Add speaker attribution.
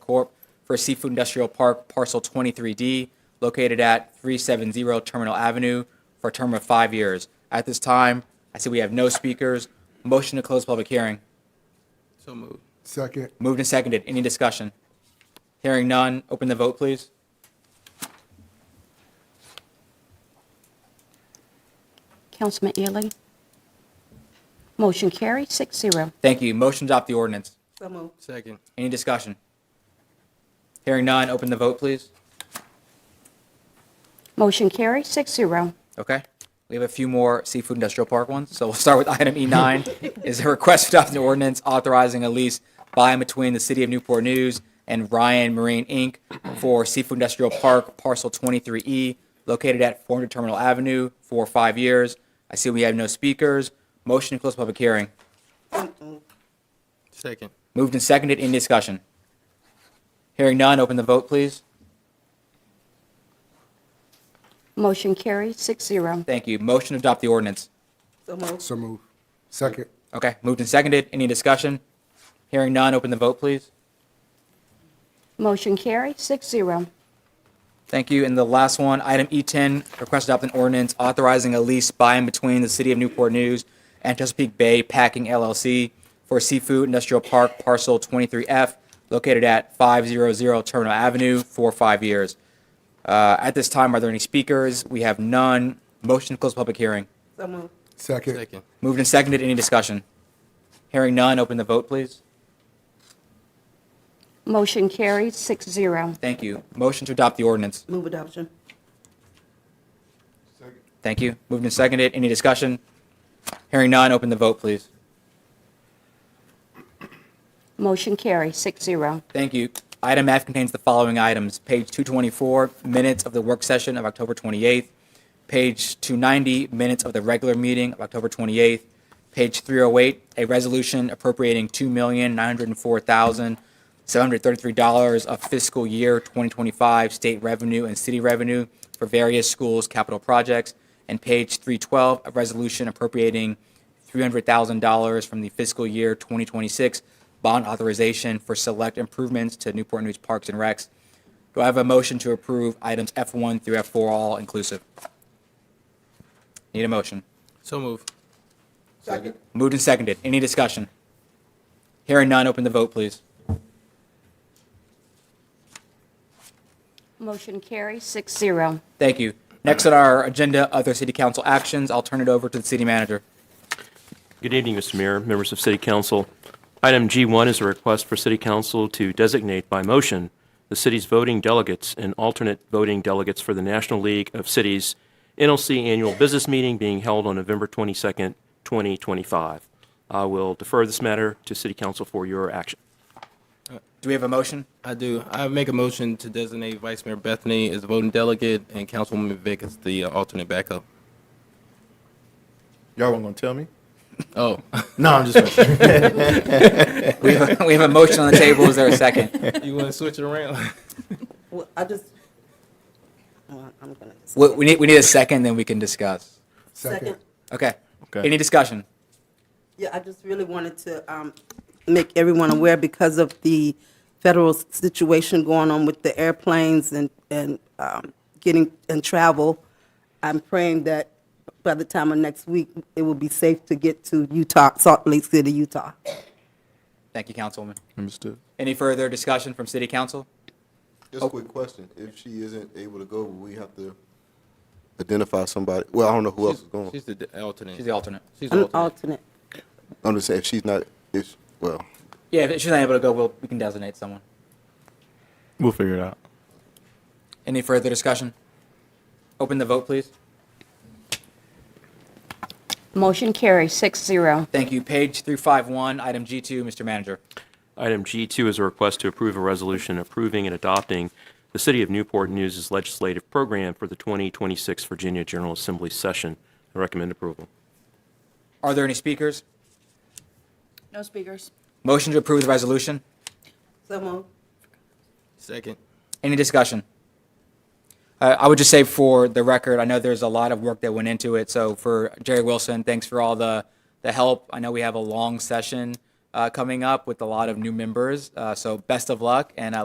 Speaker 1: Corp. for Seafood Industrial Park Parcel 23D located at 370 Terminal Avenue for a term of five years. At this time, I see we have no speakers. Motion to close public hearing.
Speaker 2: So moved.
Speaker 3: Second,
Speaker 1: Moved and seconded. Any discussion? Hearing none. Open the vote, please.
Speaker 4: Councilman Ely. Motion carried, six zero.
Speaker 1: Thank you. Motion to adopt the ordinance.
Speaker 5: So moved.
Speaker 2: Second.
Speaker 1: Any discussion? Hearing none. Open the vote, please.
Speaker 4: Motion carried, six zero.
Speaker 1: Okay. We have a few more seafood industrial park ones. So we'll start with item E9. Is a request to adopt an ordinance authorizing a lease by and between the City of Newport News and Ryan Marine Inc. for Seafood Industrial Park Parcel 23E located at 400 Terminal Avenue for five years. I see we have no speakers. Motion to close public hearing.
Speaker 2: Second.
Speaker 1: Moved and seconded. Any discussion? Hearing none. Open the vote, please.
Speaker 4: Motion carried, six zero.
Speaker 1: Thank you. Motion to adopt the ordinance.
Speaker 5: So moved.
Speaker 3: so move. Second,
Speaker 1: Okay, moved and seconded. Any discussion? Hearing none, open the vote, please.
Speaker 4: Motion carried, six zero.
Speaker 1: Thank you. And the last one, item E10, request to adopt an ordinance authorizing a lease by and between the City of Newport News and Chesapeake Bay Packing LLC for Seafood Industrial Park Parcel 23F located at 500 Terminal Avenue for five years. Uh, At this time, are there any speakers? We have none. Motion to close public hearing.
Speaker 5: So moved.
Speaker 3: second,
Speaker 2: Second.
Speaker 1: Moved and seconded. Any discussion? Hearing none, open the vote, please.
Speaker 4: Motion carried, six zero.
Speaker 1: Thank you. Motion to adopt the ordinance.
Speaker 5: Move adoption.
Speaker 1: Thank you. Moved and seconded. Any discussion? Hearing none, open the vote, please.
Speaker 4: Motion carried, six zero.
Speaker 1: Thank you. Item F contains the following items. Page 224, minutes of the work session of October 28th. Page 290, minutes of the regular meeting of October 28th. Page 308, a resolution appropriating $2,904,733 of fiscal year 2025 state revenue and city revenue for various schools' capital projects. And page 312, a resolution appropriating $300,000 from the fiscal year 2026 bond authorization for select improvements to Newport News Parks and Recs. Do I have a motion to approve items F1 through F4 all inclusive? Need a motion.
Speaker 2: So moved.
Speaker 5: Second.
Speaker 1: Moved and seconded. Any discussion? Hearing none, open the vote, please.
Speaker 4: Motion carried, six zero.
Speaker 1: Thank you. Next on our agenda, other city council actions. I'll turn it over to the city manager.
Speaker 6: Good evening, Mr. Mayor, members of City Council. Item G1 is a request for City Council to designate by motion the city's voting delegates and alternate voting delegates for the National League of Cities NLC Annual Business Meeting being held on November 22nd, 2025. I will defer this matter to City Council for your action.
Speaker 1: Do we have a motion?
Speaker 2: I do. I make a motion to designate Vice Mayor Bethany as voting delegate and Councilwoman Vick as the uh, alternate backup.
Speaker 7: Y'all weren't gonna tell me?
Speaker 2: Oh,
Speaker 7: No, I'm just. Gonna,
Speaker 1: We have, we have a motion on the table. Is there a second?
Speaker 2: you want to switch it around?
Speaker 5: Well, I just, well, I'm gonna.
Speaker 1: We, we need, we need a second, then we can discuss.
Speaker 3: second,
Speaker 1: Okay.
Speaker 7: Okay.
Speaker 1: Any discussion?
Speaker 5: Yeah, I just really wanted to um, make everyone aware because of the federal situation going on with the airplanes and, and um, getting, and travel. I'm praying that by the time of next week, it will be safe to get to Utah, Salt Lake City, Utah.
Speaker 1: Thank you, Councilwoman.
Speaker 7: understood.
Speaker 1: Any further discussion from city council?
Speaker 8: Just a quick
Speaker 2: Oh.
Speaker 8: question. If she isn't able to go, we have to identify somebody. Well, I don't know who else is going.
Speaker 2: She's the de- alternate.
Speaker 1: She's the alternate.
Speaker 2: She's the
Speaker 5: I'm
Speaker 2: alternate.
Speaker 5: alternate.
Speaker 8: I'm just saying, if she's not, if, well,
Speaker 1: Yeah, if she's not able to go, we'll, we can designate someone.
Speaker 7: We'll figure it out.
Speaker 1: Any further discussion? Open the vote, please.
Speaker 4: Motion carried, six zero.
Speaker 1: Thank you. Page 351, item G2, Mr. Manager.
Speaker 6: Item G2 is a request to approve a resolution approving and adopting the City of Newport News' legislative program for the 2026 Virginia General Assembly session. I recommend approval.
Speaker 1: Are there any speakers?
Speaker 9: No speakers.
Speaker 1: Motion to approve the resolution?
Speaker 5: So moved.
Speaker 2: Second.
Speaker 1: Any discussion? Uh, I would just say for the record, I know there's a lot of work that went into it. So for Jerry Wilson, thanks for all the, the help. I know we have a long session uh, coming up with a lot of new members. Uh, so best of luck, and I